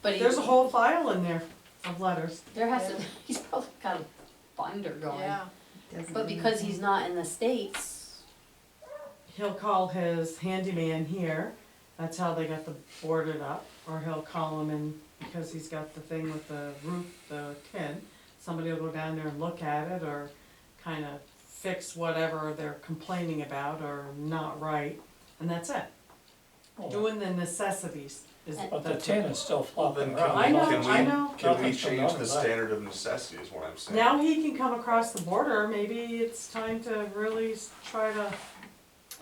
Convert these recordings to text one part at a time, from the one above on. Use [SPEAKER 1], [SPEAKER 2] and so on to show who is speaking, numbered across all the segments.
[SPEAKER 1] But he,
[SPEAKER 2] There's a whole file in there of letters.
[SPEAKER 1] there has to, he's probably got a binder going.
[SPEAKER 3] Yeah,
[SPEAKER 1] But because he's not in the States,
[SPEAKER 2] He'll call his handyman here, that's how they got the boarded up, or he'll call him and, because he's got the thing with the roof, the tin, somebody will go down there and look at it, or kind of fix whatever they're complaining about or not right, and that's it. Doing the necessities is.
[SPEAKER 4] But the
[SPEAKER 2] that's
[SPEAKER 4] tin
[SPEAKER 2] what-
[SPEAKER 4] is still
[SPEAKER 5] Well,
[SPEAKER 4] flopping
[SPEAKER 5] then
[SPEAKER 4] around.
[SPEAKER 2] I know,
[SPEAKER 5] can we,
[SPEAKER 2] I know.
[SPEAKER 5] can we
[SPEAKER 4] Nothing's coming
[SPEAKER 5] change
[SPEAKER 4] out
[SPEAKER 5] the
[SPEAKER 4] of that.
[SPEAKER 5] standard of necessity is what I'm saying?
[SPEAKER 2] Now he can come across the border, maybe it's time to really s- try to.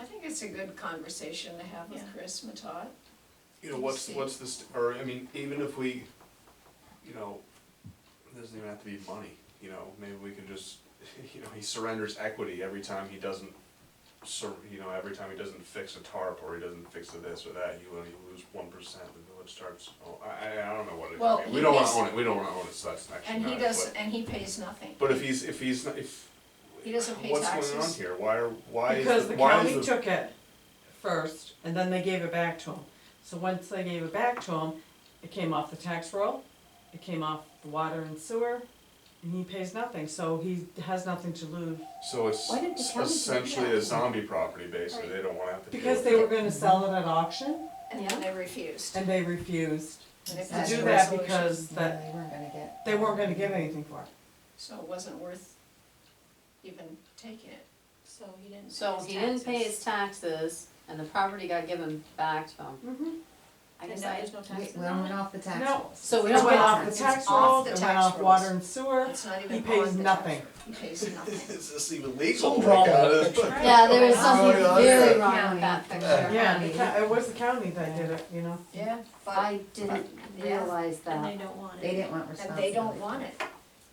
[SPEAKER 3] I think it's a good conversation to have with Chris Matott.
[SPEAKER 5] You know, what's, what's this, or, I mean, even if we, you know, it doesn't even have to be money, you know, maybe we can just, you know, he surrenders equity every time he doesn't sur, you know, every time he doesn't fix a tarp, or he doesn't fix a this or that, you only lose one percent, the village starts, oh, I, I, I don't know what it, I
[SPEAKER 3] Well,
[SPEAKER 5] mean,
[SPEAKER 3] he
[SPEAKER 5] we don't wanna
[SPEAKER 3] pays-
[SPEAKER 5] own it, we don't wanna own it, so that's actually
[SPEAKER 3] And he
[SPEAKER 5] not it,
[SPEAKER 3] does,
[SPEAKER 5] but-
[SPEAKER 3] and he pays nothing.
[SPEAKER 5] But if he's, if he's, not- if.
[SPEAKER 3] He doesn't pay
[SPEAKER 5] What's going on
[SPEAKER 3] taxes.
[SPEAKER 5] here, why are, why is,
[SPEAKER 2] Because
[SPEAKER 5] the-
[SPEAKER 2] the
[SPEAKER 5] why
[SPEAKER 2] county
[SPEAKER 5] is the,
[SPEAKER 2] took it first, and then they gave it back to them. So once they gave it back to him, it came off the tax roll, it came off the water and sewer, and he pays nothing, so he has nothing to lose.
[SPEAKER 5] so it's
[SPEAKER 1] Why did the
[SPEAKER 5] s-
[SPEAKER 1] county do
[SPEAKER 5] essentially
[SPEAKER 1] that?
[SPEAKER 5] a zombie property, basically, they don't wanna have to deal
[SPEAKER 2] Because
[SPEAKER 5] with
[SPEAKER 2] they
[SPEAKER 5] it.
[SPEAKER 2] were gonna sell it at auction,
[SPEAKER 3] And then they refused.
[SPEAKER 2] and they refused
[SPEAKER 3] And they
[SPEAKER 2] to
[SPEAKER 3] passed
[SPEAKER 2] do
[SPEAKER 3] a
[SPEAKER 2] that
[SPEAKER 3] resolution.
[SPEAKER 2] because that,
[SPEAKER 6] They weren't gonna get.
[SPEAKER 2] they weren't gonna get anything for it.
[SPEAKER 3] So it wasn't worth even taking it. So he didn't.
[SPEAKER 1] so he didn't pay his taxes and the property got given back to him.
[SPEAKER 3] Mm-hmm.
[SPEAKER 1] I guess I,
[SPEAKER 3] no
[SPEAKER 6] We, we went off the tax
[SPEAKER 2] No.
[SPEAKER 6] rolls.
[SPEAKER 1] so we
[SPEAKER 2] It
[SPEAKER 1] don't
[SPEAKER 2] went
[SPEAKER 1] pay
[SPEAKER 2] off the
[SPEAKER 1] taxes.
[SPEAKER 2] tax
[SPEAKER 3] off
[SPEAKER 2] roll,
[SPEAKER 3] the
[SPEAKER 2] it went
[SPEAKER 3] tax
[SPEAKER 2] off
[SPEAKER 3] rolls.
[SPEAKER 2] water and sewer,
[SPEAKER 3] It's not even
[SPEAKER 2] he
[SPEAKER 3] on
[SPEAKER 2] pays
[SPEAKER 3] the
[SPEAKER 2] nothing.
[SPEAKER 3] tax- He pays nothing.
[SPEAKER 5] Is this even legal? uh,
[SPEAKER 4] Something wrong with that picture.
[SPEAKER 1] Yeah, there is something
[SPEAKER 5] Oh, yeah.
[SPEAKER 1] very wrong with that picture.
[SPEAKER 2] Yeah, the ca- it was the county that did it, you know?
[SPEAKER 3] Yeah, but,
[SPEAKER 1] I didn't
[SPEAKER 3] Yeah.
[SPEAKER 1] realize
[SPEAKER 7] And they
[SPEAKER 1] that.
[SPEAKER 7] don't want
[SPEAKER 6] They
[SPEAKER 7] it.
[SPEAKER 6] didn't want
[SPEAKER 3] and
[SPEAKER 6] responsibility.
[SPEAKER 3] they don't want it.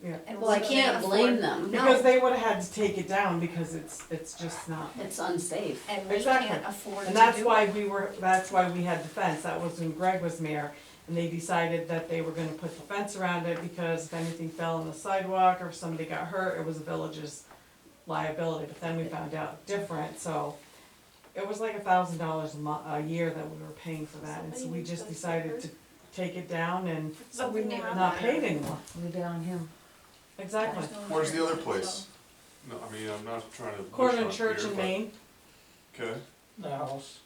[SPEAKER 2] Yeah.
[SPEAKER 3] And
[SPEAKER 1] Well, I
[SPEAKER 3] so they
[SPEAKER 1] can't
[SPEAKER 3] afford-
[SPEAKER 1] blame them.
[SPEAKER 2] Because
[SPEAKER 3] No,
[SPEAKER 2] they would've had to take it down because it's, it's just not.
[SPEAKER 1] It's unsafe.
[SPEAKER 3] and we
[SPEAKER 2] Exactly.
[SPEAKER 3] can't afford to
[SPEAKER 2] And
[SPEAKER 3] do
[SPEAKER 2] that's
[SPEAKER 3] it.
[SPEAKER 2] why we were, that's why we had the fence, that was when Greg was mayor, and they decided that they were gonna put the fence around it, because if anything fell on the sidewalk, or if somebody got hurt, it was the village's liability, but then we found out different, so it was like a thousand dollars a mo- a year that we were paying for that, and so we just decided to take it down and
[SPEAKER 3] So we never.
[SPEAKER 2] not pay it anymore,
[SPEAKER 6] Leave it on him.
[SPEAKER 2] exactly.
[SPEAKER 3] There's no
[SPEAKER 5] Where's the other
[SPEAKER 3] insurance, so-
[SPEAKER 5] place? No, I mean, I'm not trying to.
[SPEAKER 2] Corner
[SPEAKER 5] push on
[SPEAKER 2] Church
[SPEAKER 5] here,
[SPEAKER 2] in
[SPEAKER 5] but-
[SPEAKER 2] Maine,
[SPEAKER 5] Okay,
[SPEAKER 4] The house,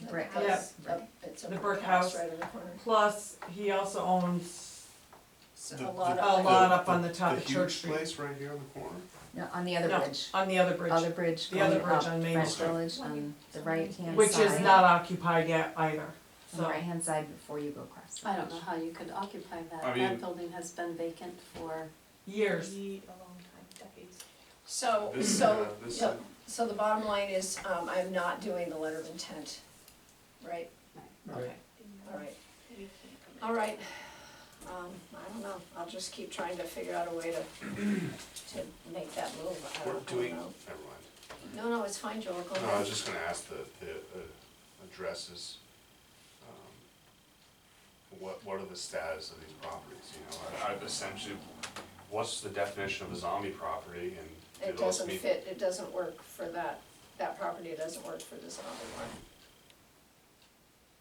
[SPEAKER 3] The
[SPEAKER 6] Brick
[SPEAKER 3] house,
[SPEAKER 2] Yeah.
[SPEAKER 3] up- It's a
[SPEAKER 2] The
[SPEAKER 3] brick
[SPEAKER 2] brick
[SPEAKER 3] house
[SPEAKER 2] house.
[SPEAKER 3] right in the corner.
[SPEAKER 2] plus, he also owns
[SPEAKER 3] So
[SPEAKER 5] The-
[SPEAKER 3] a lot
[SPEAKER 5] the-
[SPEAKER 2] a
[SPEAKER 3] of.
[SPEAKER 2] lot up on the
[SPEAKER 5] the
[SPEAKER 2] top of Church
[SPEAKER 5] huge
[SPEAKER 2] Street.
[SPEAKER 5] place right here on the corner?
[SPEAKER 6] No, on the other
[SPEAKER 2] No,
[SPEAKER 6] bridge,
[SPEAKER 2] On the other bridge.
[SPEAKER 6] other bridge
[SPEAKER 2] The other
[SPEAKER 6] going up,
[SPEAKER 2] bridge on Main
[SPEAKER 6] French
[SPEAKER 5] Street.
[SPEAKER 6] Village, on the right hand side.
[SPEAKER 2] Which is not occupied yet either,
[SPEAKER 6] On the
[SPEAKER 2] so.
[SPEAKER 6] right hand side before you go across. the
[SPEAKER 1] I don't know
[SPEAKER 6] bridge.
[SPEAKER 1] how you could occupy
[SPEAKER 5] I
[SPEAKER 1] that.
[SPEAKER 5] mean-
[SPEAKER 1] That building has been vacant for,
[SPEAKER 2] Years.
[SPEAKER 7] a long time, decades.
[SPEAKER 3] So,
[SPEAKER 5] This,
[SPEAKER 3] Oh, so,
[SPEAKER 5] uh, this,
[SPEAKER 3] so, so the bottom line is, um, I'm not doing the letter of intent, right?
[SPEAKER 4] right.
[SPEAKER 3] All right, all right. Um, I don't know, I'll just keep trying to figure out a way to, to make that move, I
[SPEAKER 5] we're
[SPEAKER 3] don't, I don't
[SPEAKER 5] doing,
[SPEAKER 3] know.
[SPEAKER 5] never mind.
[SPEAKER 3] No, no, it's fine, Joel,
[SPEAKER 5] No,
[SPEAKER 3] go
[SPEAKER 5] I was
[SPEAKER 3] ahead.
[SPEAKER 5] just gonna ask the, the, uh, addresses. um, What, what are the status of these properties, you know, I, I've essentially, what's the definition of a zombie property and
[SPEAKER 3] It
[SPEAKER 5] do those
[SPEAKER 3] doesn't
[SPEAKER 5] meet?
[SPEAKER 3] fit, it doesn't work for that, that property doesn't work for this other one.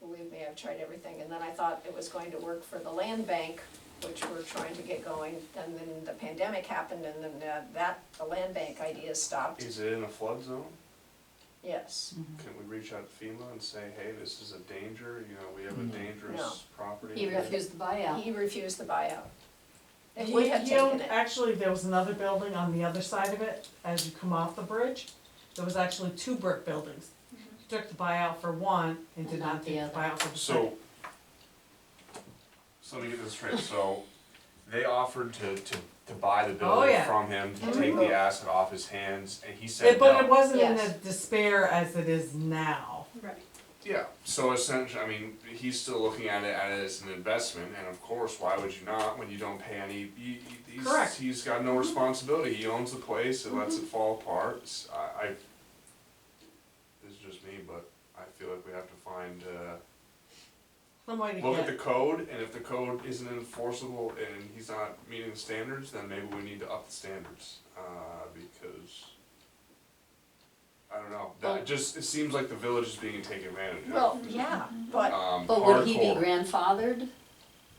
[SPEAKER 3] Believe me, I've tried everything, and then I thought it was going to work for the land bank, which we're trying to get going, and then the pandemic happened, and then uh, that, the land bank idea stopped,
[SPEAKER 5] Is it in a flood zone?
[SPEAKER 3] yes.
[SPEAKER 5] Can we reach out to FEMA and say, hey, this is a danger, you know, we have a
[SPEAKER 4] No.
[SPEAKER 5] dangerous property?
[SPEAKER 1] he
[SPEAKER 5] here?
[SPEAKER 1] refused the buyout.
[SPEAKER 3] He refused the buyout. If
[SPEAKER 2] He-
[SPEAKER 3] we had
[SPEAKER 2] he
[SPEAKER 3] taken
[SPEAKER 2] owned-
[SPEAKER 3] it,
[SPEAKER 2] Actually, there was another building on the other side of it, as you come off the bridge, there was actually two brick buildings. Took the buyout for one and did
[SPEAKER 1] And
[SPEAKER 2] not
[SPEAKER 1] not the
[SPEAKER 2] take the
[SPEAKER 1] other.
[SPEAKER 2] buyout for the
[SPEAKER 5] So,
[SPEAKER 2] second.
[SPEAKER 5] so let me get this straight, so they offered to, to, to buy the
[SPEAKER 2] Oh,
[SPEAKER 5] building
[SPEAKER 2] yeah.
[SPEAKER 5] from him, to
[SPEAKER 3] Mhm.
[SPEAKER 5] take the asset off his hands, and he
[SPEAKER 2] It-
[SPEAKER 5] said
[SPEAKER 2] But it
[SPEAKER 5] no.
[SPEAKER 2] wasn't in the
[SPEAKER 3] Yes.
[SPEAKER 2] despair as it is now.
[SPEAKER 7] Right.
[SPEAKER 5] Yeah, so essentially, I mean, he's still looking at it as an investment, and of course, why would you not, when you don't pay any, you, you- he's-
[SPEAKER 2] Correct.
[SPEAKER 5] He's got no responsibility, he owns the place, and lets it fall apart, S- I, I, this is just me, but I feel like we have to find, uh,
[SPEAKER 2] Some way to
[SPEAKER 5] look at the
[SPEAKER 2] get,
[SPEAKER 5] code, and if the code isn't enforceable and he's not meeting the standards, then maybe we need to up the standards, uh, because. I don't know,
[SPEAKER 1] Well-
[SPEAKER 5] that just, it seems like the village is being taken advantage of.
[SPEAKER 3] well, yeah, but
[SPEAKER 5] Um,
[SPEAKER 1] But would he be
[SPEAKER 5] hardcore.
[SPEAKER 1] grandfathered?